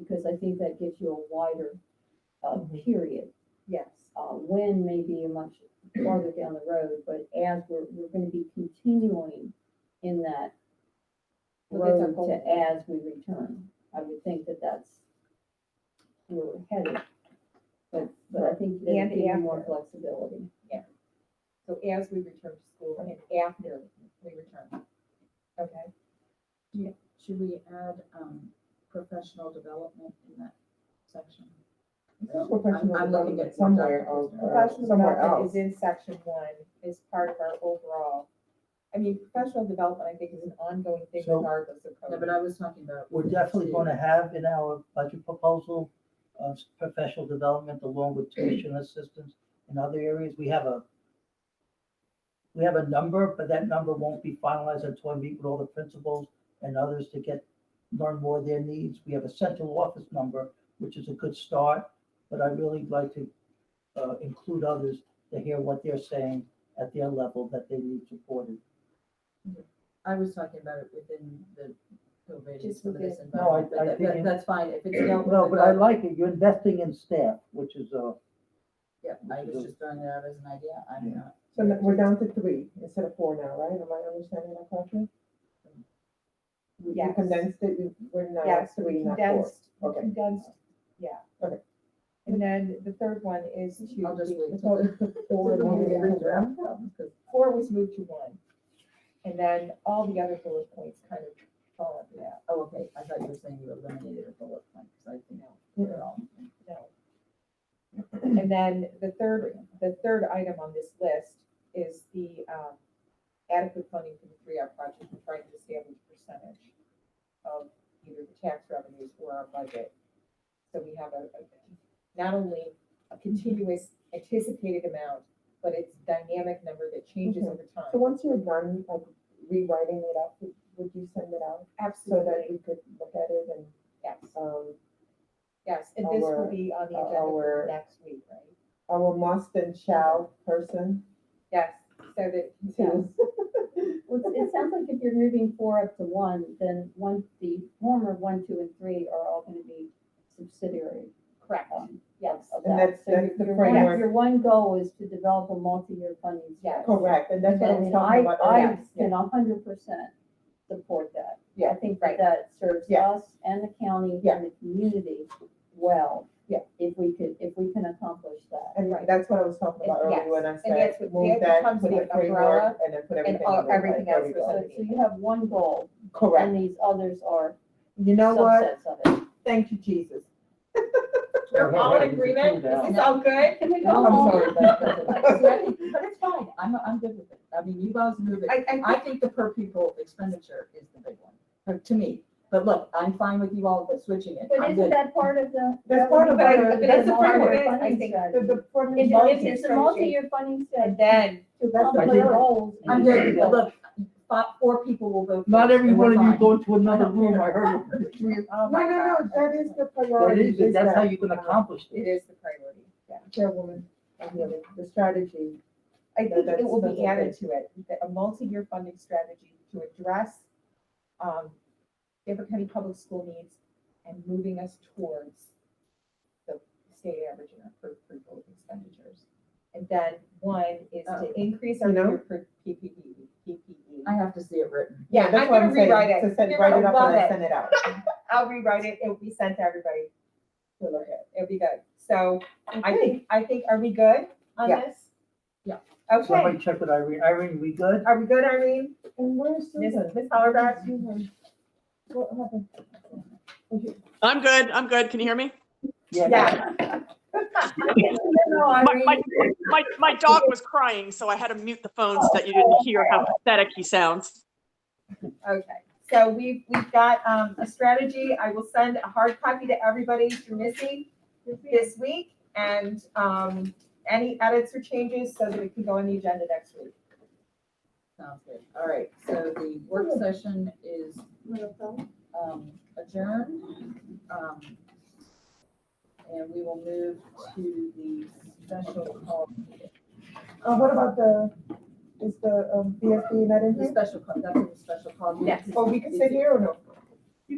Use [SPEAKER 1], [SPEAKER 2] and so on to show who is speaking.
[SPEAKER 1] I think that gives you a wider, uh,
[SPEAKER 2] Mhm.
[SPEAKER 1] period.
[SPEAKER 3] Yes.
[SPEAKER 1] Uh, when may be a much farther down the road, but as we're, we're gonna be continuing in that
[SPEAKER 3] Well, that's our
[SPEAKER 1] road
[SPEAKER 3] goal.
[SPEAKER 1] to as we return. I would think that that's where we're headed. But, but I think
[SPEAKER 3] And
[SPEAKER 1] there's even more
[SPEAKER 3] after.
[SPEAKER 1] flexibility.
[SPEAKER 3] So as we return to school and after we return. Okay,
[SPEAKER 4] Should we add, um, professional development in that section?
[SPEAKER 2] Professional
[SPEAKER 4] I'm looking
[SPEAKER 2] development
[SPEAKER 4] at what
[SPEAKER 2] somewhere
[SPEAKER 4] Dr.
[SPEAKER 2] else.
[SPEAKER 4] Kirsten-
[SPEAKER 2] or
[SPEAKER 3] professional
[SPEAKER 2] somewhere
[SPEAKER 3] development
[SPEAKER 2] else.
[SPEAKER 3] is in section one, is part of our overall. I mean, professional development, I think, is an ongoing thing
[SPEAKER 5] So-
[SPEAKER 3] regardless of
[SPEAKER 4] No,
[SPEAKER 3] COVID.
[SPEAKER 4] but I was talking about.
[SPEAKER 5] We're definitely gonna have in our budget proposal, uh, s- professional development along with tuition assistance in other areas. We have a, we have a number, but that number won't be finalized until I meet with all the principals and others to get, learn more of their needs. We have a central office number, which is a good start, but I'd really like to, uh, include others to hear what they're saying at their level that they need supported.
[SPEAKER 4] I was talking about it within the COVID and
[SPEAKER 3] Just
[SPEAKER 4] some of this
[SPEAKER 5] No, I-
[SPEAKER 4] environment, but
[SPEAKER 5] I
[SPEAKER 4] that-
[SPEAKER 5] think
[SPEAKER 4] that-
[SPEAKER 5] it-
[SPEAKER 4] that's fine, if it's dealt with.
[SPEAKER 5] No, but I
[SPEAKER 4] but-
[SPEAKER 5] like it. You're investing in staff, which is, uh,
[SPEAKER 4] Yeah, I was just throwing it out as an idea, I'm
[SPEAKER 5] Yeah.
[SPEAKER 4] not.
[SPEAKER 2] So n- we're down to three instead of four now, right? Am I understanding that correctly? We- we
[SPEAKER 3] Yes.
[SPEAKER 2] Condensed it, we- we're now
[SPEAKER 3] Yes,
[SPEAKER 2] at
[SPEAKER 3] so we
[SPEAKER 2] three, not four.
[SPEAKER 3] condensed, we
[SPEAKER 2] Okay.
[SPEAKER 3] condensed, yeah.
[SPEAKER 2] Okay.
[SPEAKER 3] And then the third one is to.
[SPEAKER 4] I'll just wait.
[SPEAKER 3] the-
[SPEAKER 2] So it's the four and one is the draft.
[SPEAKER 3] Four was moved to one. And then all the other bullet points kind of fall under that.
[SPEAKER 4] Oh, okay, I thought you were saying you eliminated a bullet point, because I think
[SPEAKER 3] No.
[SPEAKER 4] they're all.
[SPEAKER 3] No. And then the third, the third item on this list is the um, adequate funding for the three-hour project, we're trying to establish percentage of either the tax revenues or our budget. So we have a, a- not only a continuous anticipated amount, but it's dynamic number that changes
[SPEAKER 2] Mhm.
[SPEAKER 3] over
[SPEAKER 2] So
[SPEAKER 3] time.
[SPEAKER 2] once you're done, like rewriting it up, would- would you send it out so that
[SPEAKER 3] Absolutely,
[SPEAKER 2] we could look at it and,
[SPEAKER 3] yes,
[SPEAKER 2] um,
[SPEAKER 3] yes, and this will
[SPEAKER 2] Our- uh,
[SPEAKER 3] be on the agenda for
[SPEAKER 2] our-
[SPEAKER 3] next week, right?
[SPEAKER 2] our must and shall person
[SPEAKER 3] Yes, so that,
[SPEAKER 2] to,
[SPEAKER 1] Well, it's- it sounds like if you're moving four up to one, then one, the former one, two, and three are all gonna be subsidiary.
[SPEAKER 3] correct,
[SPEAKER 1] um,
[SPEAKER 3] yes.
[SPEAKER 1] of that.
[SPEAKER 2] And that's-
[SPEAKER 1] So your-
[SPEAKER 2] that's the
[SPEAKER 1] your one-
[SPEAKER 2] framework.
[SPEAKER 1] Your one goal is to develop a multi-year funding
[SPEAKER 3] Yes.
[SPEAKER 1] strategy.
[SPEAKER 2] correct, and that's what I was
[SPEAKER 1] And
[SPEAKER 2] talking
[SPEAKER 1] I,
[SPEAKER 2] about.
[SPEAKER 1] I
[SPEAKER 2] earlier.
[SPEAKER 1] can hundred percent support that.
[SPEAKER 2] Yeah,
[SPEAKER 1] I think
[SPEAKER 3] right.
[SPEAKER 1] that that serves
[SPEAKER 2] Yeah.
[SPEAKER 1] us and the county
[SPEAKER 2] Yeah.
[SPEAKER 1] and the community well.
[SPEAKER 2] Yeah.
[SPEAKER 1] If we could, if we can accomplish that.
[SPEAKER 2] And
[SPEAKER 3] Right.
[SPEAKER 2] that's what I was talking about
[SPEAKER 3] And
[SPEAKER 2] earlier
[SPEAKER 3] yes,
[SPEAKER 2] when I
[SPEAKER 3] that's
[SPEAKER 2] said,
[SPEAKER 3] what- that
[SPEAKER 2] move that,
[SPEAKER 3] becomes
[SPEAKER 2] put a
[SPEAKER 3] the
[SPEAKER 2] framework,
[SPEAKER 3] umbrella
[SPEAKER 2] and then put everything.
[SPEAKER 3] all-
[SPEAKER 2] under it.
[SPEAKER 3] everything
[SPEAKER 2] There we
[SPEAKER 3] else
[SPEAKER 2] go.
[SPEAKER 3] was
[SPEAKER 1] So, so you have one goal
[SPEAKER 2] Correct.
[SPEAKER 1] and these others are
[SPEAKER 2] You know what?
[SPEAKER 1] subsets of it.
[SPEAKER 2] Thank you, Jesus.
[SPEAKER 3] We're all in agreement? Is this all good?
[SPEAKER 1] Can we go
[SPEAKER 4] No,
[SPEAKER 1] home?
[SPEAKER 2] I'm sorry, but-
[SPEAKER 4] But it's fine, I'm, I'm good with it, I mean, you guys move it.
[SPEAKER 3] I, I
[SPEAKER 4] I think the per pupil expenditure is the big one, uh, to me. But look, I'm fine with you all switching it.
[SPEAKER 1] But
[SPEAKER 4] I'm
[SPEAKER 1] isn't
[SPEAKER 4] good.
[SPEAKER 1] that part of the?
[SPEAKER 2] That's part of
[SPEAKER 3] But I-
[SPEAKER 2] our-
[SPEAKER 3] but it's a
[SPEAKER 2] that's part of
[SPEAKER 3] framework,
[SPEAKER 2] our
[SPEAKER 3] I
[SPEAKER 1] funding
[SPEAKER 3] think.
[SPEAKER 1] strategy.
[SPEAKER 2] The, the formula
[SPEAKER 1] It's,
[SPEAKER 2] of
[SPEAKER 1] it's- it's a
[SPEAKER 2] strategy.
[SPEAKER 1] multi-year funding
[SPEAKER 3] And
[SPEAKER 1] strategy.
[SPEAKER 3] then,
[SPEAKER 1] to
[SPEAKER 2] That's
[SPEAKER 1] accomplish
[SPEAKER 5] what I
[SPEAKER 2] think-
[SPEAKER 1] goals.
[SPEAKER 4] I'm good, but look, five, four people will vote.
[SPEAKER 5] Not
[SPEAKER 4] for it,
[SPEAKER 5] every
[SPEAKER 4] and we're
[SPEAKER 5] one of you
[SPEAKER 4] fine.
[SPEAKER 5] go to another room, I heard it.
[SPEAKER 2] No, no, no, that is the
[SPEAKER 5] That
[SPEAKER 2] priority.
[SPEAKER 5] is, it. that's how
[SPEAKER 2] that,
[SPEAKER 5] you can accomplish
[SPEAKER 3] it
[SPEAKER 5] it.
[SPEAKER 3] is the priority, yeah.
[SPEAKER 2] Chairwoman, I'm really- the strategy.
[SPEAKER 3] I
[SPEAKER 2] No,
[SPEAKER 3] think it
[SPEAKER 2] that's-
[SPEAKER 3] will
[SPEAKER 2] that's
[SPEAKER 3] be
[SPEAKER 2] okay.
[SPEAKER 3] added to it, that a multi-year funding strategy to address, um, Dearborn County Public School needs and moving us towards the state average in our per pupil expenditures. And then one is
[SPEAKER 4] Oh.
[SPEAKER 3] to increase our
[SPEAKER 2] You know?
[SPEAKER 3] year per E, PPE, PPE.
[SPEAKER 4] I have to see it written.
[SPEAKER 3] Yeah,
[SPEAKER 2] That's
[SPEAKER 3] I'm
[SPEAKER 2] what
[SPEAKER 3] gonna
[SPEAKER 2] saying,
[SPEAKER 3] rewrite it.
[SPEAKER 2] To send,
[SPEAKER 3] You're
[SPEAKER 2] write
[SPEAKER 3] gonna
[SPEAKER 2] it up and
[SPEAKER 3] love
[SPEAKER 2] then
[SPEAKER 3] it.
[SPEAKER 2] send it out.
[SPEAKER 3] I'll rewrite it, it'll be sent to everybody to look at, it'll be good. So I think, I think, are we good on
[SPEAKER 2] Yeah.
[SPEAKER 3] this?
[SPEAKER 4] Yeah.
[SPEAKER 3] Okay,
[SPEAKER 5] Somebody check with Irene. Irene, we good?
[SPEAKER 3] are we good, Irene?
[SPEAKER 2] And where's
[SPEAKER 3] Miss
[SPEAKER 2] Susan?
[SPEAKER 3] Miss Hollerback?
[SPEAKER 2] Susan, What happened?
[SPEAKER 6] I'm good. I'm good. Can you hear me?
[SPEAKER 3] Yeah.
[SPEAKER 6] My, my, my, my dog was crying, so I had to mute the phone so that you didn't hear how pathetic he sounds.
[SPEAKER 3] Okay, so we've, we've got, um, a strategy. I will send a hard copy to everybody through Missy this week. And, um, any edits or changes so that it can go on the agenda next week.
[SPEAKER 4] Sounds good. All right, so the work session is um, adjourned. Um, And we will move to the special call,
[SPEAKER 2] Uh, what about the, is the, um, BSB not in
[SPEAKER 4] the
[SPEAKER 2] here?
[SPEAKER 4] special call, that's the special call. meeting.
[SPEAKER 3] Yes.
[SPEAKER 2] Or Oh, we can sit here or no?